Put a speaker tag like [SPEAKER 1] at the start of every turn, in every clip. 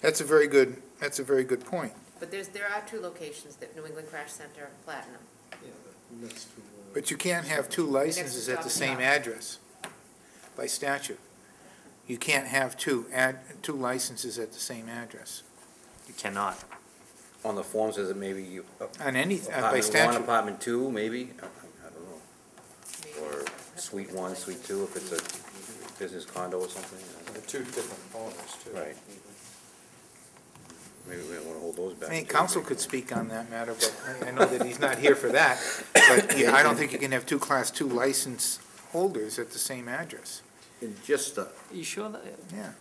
[SPEAKER 1] That's a very good, that's a very good point.
[SPEAKER 2] But there's, there are two locations, the New England Crash Center and Platinum.
[SPEAKER 3] Next to, uh,
[SPEAKER 1] But you can't have two licenses at the same address by statute. You can't have two ad, two licenses at the same address
[SPEAKER 4] You cannot.
[SPEAKER 5] On the forms, is it maybe you?
[SPEAKER 1] on any, uh, by
[SPEAKER 5] apartment One,
[SPEAKER 1] statute.
[SPEAKER 5] apartment two, maybe? I I- I don't know. Or suite one, suite two, if it's a business condo or something. I don't know.
[SPEAKER 3] the two different owners too.
[SPEAKER 5] Right.
[SPEAKER 6] Mm-hmm.
[SPEAKER 5] Maybe we don't want to hold those
[SPEAKER 1] I
[SPEAKER 5] back.
[SPEAKER 1] think
[SPEAKER 5] too.
[SPEAKER 1] council could speak on that matter, but I- I know that he's not here for that. But yeah, I don't think you can have two class two license holders at the same address.
[SPEAKER 5] And just, uh,
[SPEAKER 4] You sure that?
[SPEAKER 1] Yeah,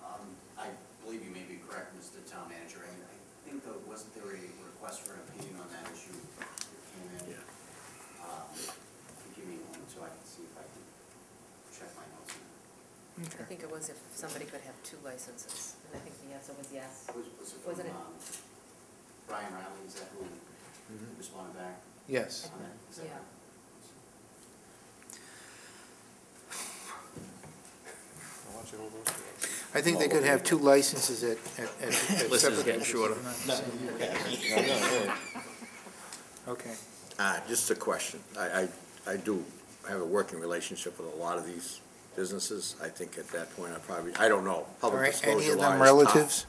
[SPEAKER 7] Um, I believe you may be correct, Mr. Town Manager. I I think, though, wasn't there a request for an opinion on that issue that came in?
[SPEAKER 5] Yeah.
[SPEAKER 7] Um, Give me a moment so I can see if I can check my notes. on that.
[SPEAKER 1] okay.
[SPEAKER 2] I think it was if somebody could have two licenses, and I think the answer was yes.
[SPEAKER 7] Was was it
[SPEAKER 2] Wasn't it-
[SPEAKER 7] from um, Brian Riley? Is that who responded back
[SPEAKER 1] Yes.
[SPEAKER 7] on that? Is that
[SPEAKER 2] Yeah.
[SPEAKER 7] right?
[SPEAKER 3] I want you to hold those two.
[SPEAKER 1] I think they could have two licenses at, at, at- at separate.
[SPEAKER 4] List is getting shorter.
[SPEAKER 1] Okay.
[SPEAKER 8] Uh, Just a question. I, I, I do have a working relationship with a lot of these businesses. I think at that point, I probably, I don't know.
[SPEAKER 1] All
[SPEAKER 8] Public
[SPEAKER 1] right, any
[SPEAKER 8] disclosure
[SPEAKER 1] of
[SPEAKER 8] law
[SPEAKER 1] them
[SPEAKER 8] is tough.
[SPEAKER 1] relatives?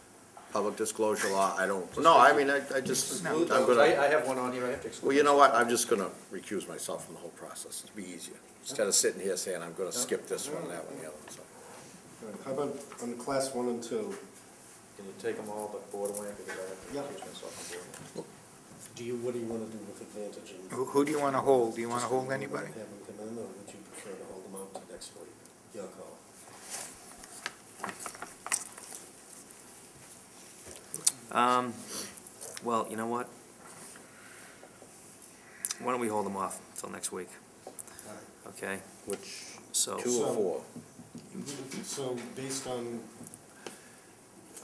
[SPEAKER 8] Public disclosure law, I don't, no, I mean, I, I just, I'm gonna,
[SPEAKER 3] I, I have one on here, I have to exclude.
[SPEAKER 8] well, you know what? I'm just gonna recuse myself from the whole process. It'd be easier. Instead of sitting here saying, I'm gonna skip this one, that one, the other one, so.
[SPEAKER 6] How about on the class one and two?
[SPEAKER 3] Can you take them all but Borderland, because I
[SPEAKER 6] Yeah.
[SPEAKER 3] have to excuse myself from Borderland?
[SPEAKER 6] Do you, what do you want to do with advantage and?
[SPEAKER 1] Who, who do you want to hold? Do you want to hold anybody?
[SPEAKER 6] Have them come in, or would you prefer to hold them out to next week? Your call.
[SPEAKER 4] Um, well, you know what? Why don't we hold them off until next week? Okay,
[SPEAKER 8] Which,
[SPEAKER 4] so,
[SPEAKER 8] two or four?
[SPEAKER 6] So based on,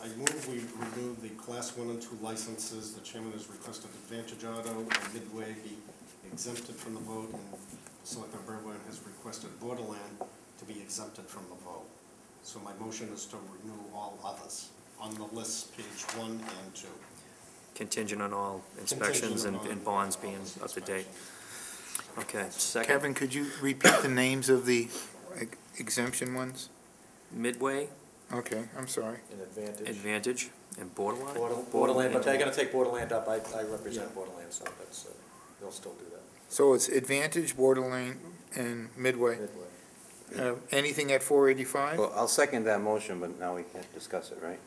[SPEAKER 6] I move we remove the class one and two licenses. The chairman has requested Advantage Auto and Midway be exempted from the vote, and Selectman Berwin has requested Borderland to be exempted from the vote. So my motion is to remove all others on the list, page one and two.
[SPEAKER 4] contingent on all inspections and,
[SPEAKER 6] Contingent
[SPEAKER 4] and
[SPEAKER 6] on
[SPEAKER 4] bonds being up to date.
[SPEAKER 6] inspection.
[SPEAKER 4] Okay, second,
[SPEAKER 1] Kevin, could you repeat the names of the ex- exemption ones?
[SPEAKER 4] Midway,
[SPEAKER 1] Okay, I'm sorry.
[SPEAKER 3] An advantage.
[SPEAKER 4] Advantage, and Borderline?
[SPEAKER 3] Border- Borderland, but they're gonna take Borderland up, I, I
[SPEAKER 6] Yeah.
[SPEAKER 3] represent Borderland, so that's, uh, they'll still do that.
[SPEAKER 1] So it's Advantage, Borderline, and Midway.
[SPEAKER 3] Midway.
[SPEAKER 1] Uh, Anything at four eighty-five?
[SPEAKER 5] Well, I'll second that motion, but now we can't discuss it, right?